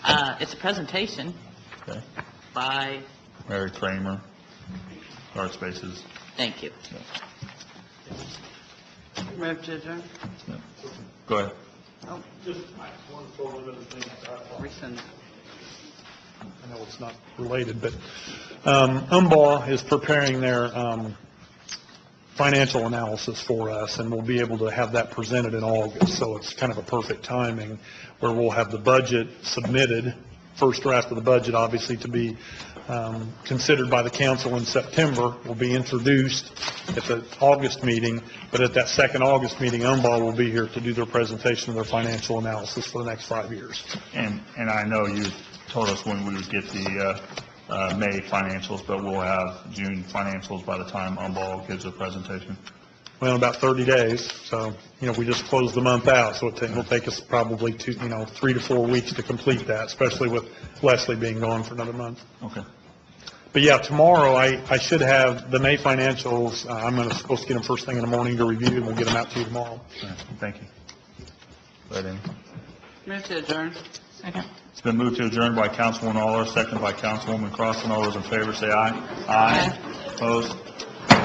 Uh, it's a presentation Okay. by, Mary Kramer, Art Spaces. thank you. Move to adjourn? Yeah. Go ahead. Oh, Just one forward of the thing, I apologize. rescind. I know it's not related, but um, Umbaugh is preparing their um, financial analysis for us, and we'll be able to have that presented in August, so it's kind of a perfect timing, where we'll have the budget submitted, first draft of the budget, obviously, to be um, considered by the council in September, will be introduced at the August meeting, but at that second August meeting, Umbaugh will be here to do their presentation of their financial analysis for the next five years. And, and I know you told us when we would get the uh, uh, May financials, but we'll have June financials by the time Umball gives a presentation. well, in about 30 days, so, you know, we just closed the month out, so it will take us probably two, you know, three to four weeks to complete that, especially with Leslie being gone for another month. Okay. But yeah, tomorrow, I, I should have the May financials, uh, I'm gonna, supposed to get them first thing in the morning to review, and we'll get them out to you tomorrow. All right. Thank you. Go ahead, Amy. Move to adjourn? Second. It's been moved to adjourn by Councilwoman Aller, second by Councilwoman Crossen. All those in favor, say aye. Aye. Opposed?